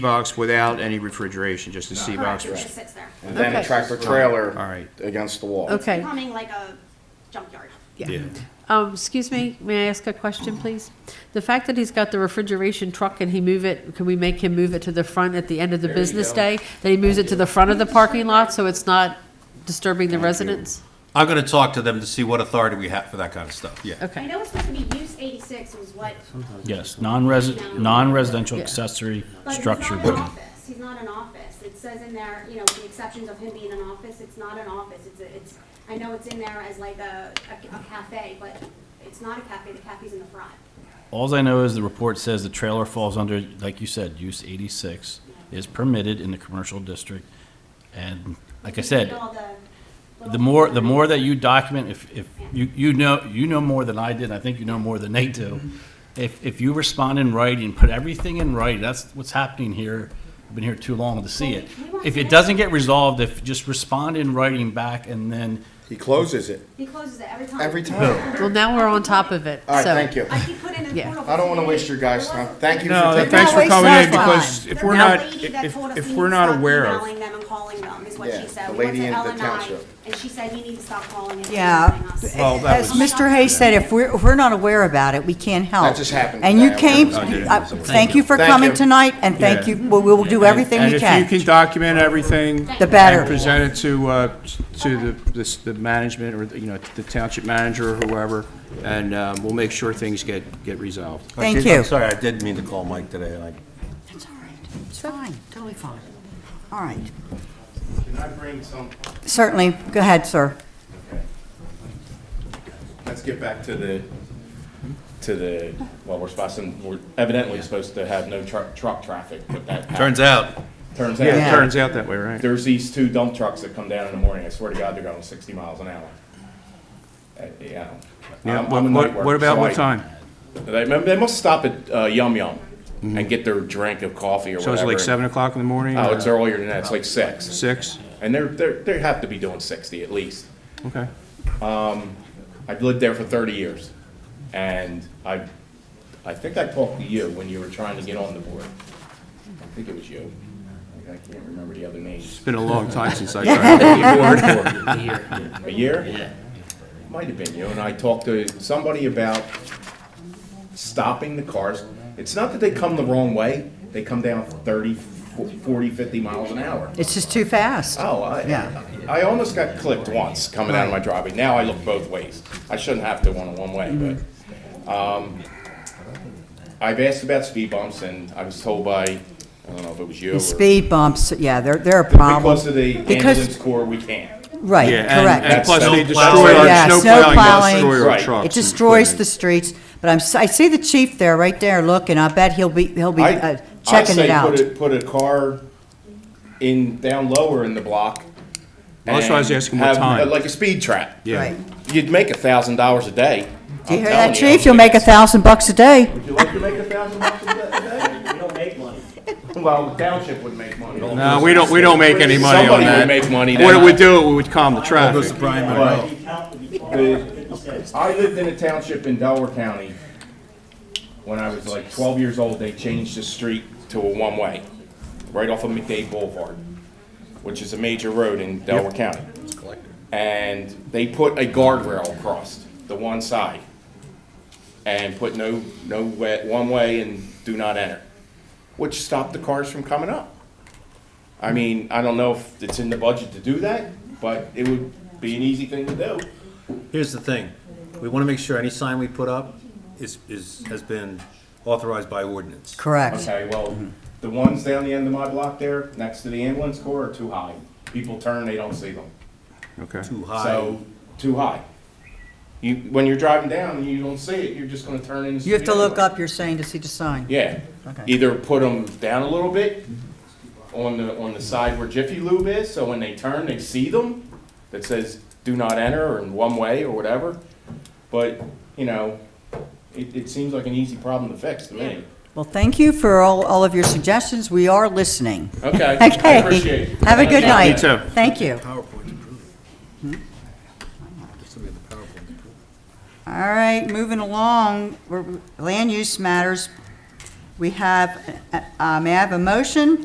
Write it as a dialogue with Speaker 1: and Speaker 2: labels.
Speaker 1: box without any refrigeration, just a C
Speaker 2: Correct,
Speaker 1: box.
Speaker 2: it just sits there.
Speaker 3: And then a
Speaker 4: Okay.
Speaker 3: tractor trailer.
Speaker 1: All right.
Speaker 3: Against the wall.
Speaker 4: Okay,
Speaker 2: Becoming like a junkyard.
Speaker 4: yeah. Um, excuse me, may I ask a question, please? The fact that he's got the refrigeration truck and he move it, can we make him move it to the front at the end of the business day? That he moves it to the front of the parking lot so it's not disturbing the residents?
Speaker 5: I'm gonna talk to them to see what authority we have for that kind of stuff, yeah.
Speaker 2: I
Speaker 4: Okay,
Speaker 2: know it's supposed to be use eighty-six was what,
Speaker 6: Yes, non-resi- non-residential
Speaker 4: Yeah.
Speaker 6: accessory
Speaker 2: but he's not
Speaker 6: structure
Speaker 2: an
Speaker 6: building.
Speaker 2: office, he's not an office. It says in there, you know, with the exceptions of him being an office, it's not an office, it's, a- it's, I know it's in there as like a, a a cafe, but it's not a cafe, the cafe's in the front.
Speaker 6: Alls I know is the report says the trailer falls under, like you said, use eighty-six, is permitted in the commercial district. And like I
Speaker 2: You
Speaker 6: said,
Speaker 2: need all little-
Speaker 6: the more, the more that you document, if, if, you, you know, you know more than I did, and I think you know more than they do. If, if you respond in writing, put everything in writing, that's what's happening here, I've been here too long to see
Speaker 2: Well,
Speaker 6: it.
Speaker 2: we- we want
Speaker 6: If
Speaker 2: to-
Speaker 6: it doesn't get resolved, if, just respond in writing back and then
Speaker 3: He closes it
Speaker 2: He closes it every time.
Speaker 3: every time.
Speaker 4: well, now we're on top of it, so.
Speaker 3: All right, thank you.
Speaker 2: I keep putting in
Speaker 4: Yeah.
Speaker 2: portable.
Speaker 3: I don't want to
Speaker 2: today.
Speaker 3: waste your guys'
Speaker 2: There
Speaker 3: time.
Speaker 2: wasn't-
Speaker 3: Thank you
Speaker 1: No,
Speaker 3: for taking.
Speaker 1: thanks for
Speaker 4: wasting
Speaker 1: coming
Speaker 4: our
Speaker 1: in because
Speaker 4: time.
Speaker 1: if
Speaker 2: The
Speaker 1: we're
Speaker 2: Bell
Speaker 1: not,
Speaker 2: lady that
Speaker 1: if,
Speaker 2: told us
Speaker 1: if
Speaker 2: we
Speaker 1: we're
Speaker 2: need to
Speaker 1: not
Speaker 2: stop
Speaker 1: aware of.
Speaker 2: Emailing them and calling them is what
Speaker 3: Yeah,
Speaker 2: she said.
Speaker 3: the
Speaker 2: We went
Speaker 3: lady
Speaker 2: to
Speaker 3: in the
Speaker 2: LNI,
Speaker 3: township.
Speaker 2: And she said, you need to stop calling and
Speaker 7: Yeah.
Speaker 2: emailing us.
Speaker 1: Well, that
Speaker 7: As Mr. Hayes said, if we're, if we're not aware about it, we can't help.
Speaker 3: That just happened
Speaker 7: And you
Speaker 3: today.
Speaker 7: came,
Speaker 3: I
Speaker 7: I- thank you for
Speaker 3: Thank
Speaker 7: coming
Speaker 3: you.
Speaker 7: tonight, and thank you, we we will do everything
Speaker 1: And
Speaker 7: we
Speaker 1: if you
Speaker 7: can.
Speaker 1: can document everything.
Speaker 7: The better.
Speaker 1: And present it to, uh, to the, this- the management or, you know, the township manager or whoever, and, um, we'll make sure things get, get resolved.
Speaker 7: Thank
Speaker 5: Actually, I'm
Speaker 7: you.
Speaker 5: Sorry, I did mean to call Mike today, and I
Speaker 7: It's all right, it's fine, totally fine. All right,
Speaker 8: Can I bring some,
Speaker 7: certainly, go ahead, sir.
Speaker 8: let's get back to the, to the, well, we're supposed to, we're evidently supposed to have no truck, truck traffic, but that.
Speaker 5: turns out,
Speaker 8: Turns
Speaker 1: Yeah, it
Speaker 8: out,
Speaker 1: turns out that way, right?
Speaker 8: there's these two dump trucks that come down in the morning, I swear to God, they're going sixty miles an hour. Uh, Yeah.
Speaker 1: Yeah,
Speaker 8: I'm-
Speaker 1: what,
Speaker 8: I'm a night
Speaker 1: what- what
Speaker 8: worker,
Speaker 1: about
Speaker 8: so
Speaker 1: what
Speaker 8: I-
Speaker 1: time?
Speaker 8: They, they must stop at uh, Yum Yum and get their drink of coffee or
Speaker 1: Mm-hmm. So
Speaker 8: whatever.
Speaker 1: it's like seven o'clock in the morning?
Speaker 8: Oh,
Speaker 1: or
Speaker 8: it's earlier than that, it's like six,
Speaker 1: Six?
Speaker 8: and they're, they're, they have to be doing sixty at least.
Speaker 1: Okay.
Speaker 8: I've lived there for 30 years, and I, I think I talked to you when you were trying to get on the board. I think it was you. I can't remember the other name.
Speaker 1: It's been a long time since I tried.
Speaker 8: A year? Yeah. Might have been you, and I talked to somebody about stopping the cars. It's not that they come the wrong way, they come down 30, 40, 50 miles an hour.
Speaker 7: It's just too fast.
Speaker 8: Oh, I,
Speaker 7: Yeah.
Speaker 8: I almost got clipped once coming out of my driveway. Now I look both ways. I shouldn't have to on a one-way, but, um, I've asked about speed bumps and I was told by, I don't know if it was you or.
Speaker 7: Speed bumps, yeah, they're, they're a problem.
Speaker 8: Because of the
Speaker 7: Because-
Speaker 8: ambulance corps, we can't.
Speaker 7: Right,
Speaker 1: Yeah, and, and
Speaker 7: correct.
Speaker 1: plus they
Speaker 5: Snowplow.
Speaker 1: destroy
Speaker 7: Yeah,
Speaker 1: our, snow plowing,
Speaker 7: snowplowing.
Speaker 1: destroy our
Speaker 8: Right.
Speaker 1: trucks.
Speaker 7: It
Speaker 1: and
Speaker 7: destroys
Speaker 1: equipment.
Speaker 7: the streets, but I'm, s- I see the chief there, right there, looking, I bet he'll be, he'll be
Speaker 8: I-
Speaker 7: uh,
Speaker 8: I
Speaker 7: checking
Speaker 8: say
Speaker 7: it out.
Speaker 8: Put a, put a car in, down lower in the block.
Speaker 1: Well, that's why I was
Speaker 8: and
Speaker 1: asking what
Speaker 8: have, uh,
Speaker 1: time.
Speaker 8: Like a speed trap.
Speaker 1: Yeah.
Speaker 7: Right.
Speaker 8: You'd make a thousand dollars a
Speaker 7: Do
Speaker 8: day.
Speaker 7: you
Speaker 8: I'm
Speaker 7: hear that,
Speaker 8: telling you.
Speaker 7: chief? You'll make a thousand bucks a day.
Speaker 8: Would you like to make a thousand bucks a day? We don't make money. Well, the township would make money.
Speaker 1: No, we don't, we don't make any money on
Speaker 8: Somebody would
Speaker 1: that.
Speaker 8: make money
Speaker 1: What it
Speaker 8: then.
Speaker 1: would do, it would calm the traffic.
Speaker 8: But the- I lived in a township in Delaware County. When I was like twelve years old, they changed the street to a one-way, right off of McDade Boulevard, which is a major road in Delaware County. And they put a guardrail across the one side and put no, no way, one way and do not enter, which stopped the cars from coming up. I mean, I don't know if it's in the budget to do that, but it would be an easy thing to do.
Speaker 5: here's the thing, we wanna make sure any sign we put up is, is, has been authorized by ordinance.
Speaker 7: Correct.
Speaker 8: Okay, well, the ones down the end of my block there, next to the ambulance corps are too high. People turn, they don't see them.
Speaker 1: Okay.
Speaker 5: Too high,
Speaker 8: So, too high. You, when you're driving down and you don't see it, you're just gonna turn into.
Speaker 7: You have to look up, you're saying, to see the sign.
Speaker 8: Yeah.
Speaker 7: Okay.
Speaker 8: Either put them down a little bit on the, on the side where Jiffy Lube is, so when they turn, they see them, that says, do not enter, or in one way, or whatever. But, you know, it, it seems like an easy problem to fix to me.
Speaker 7: Well, thank you for all, all of your suggestions. We are listening.
Speaker 8: Okay, I
Speaker 7: Okay.
Speaker 8: appreciate it.
Speaker 7: Have a good
Speaker 8: Thank you.
Speaker 7: night.
Speaker 1: too.
Speaker 7: Thank you. All right, moving along, we're- land use matters. We have, uh, uh, may I have a motion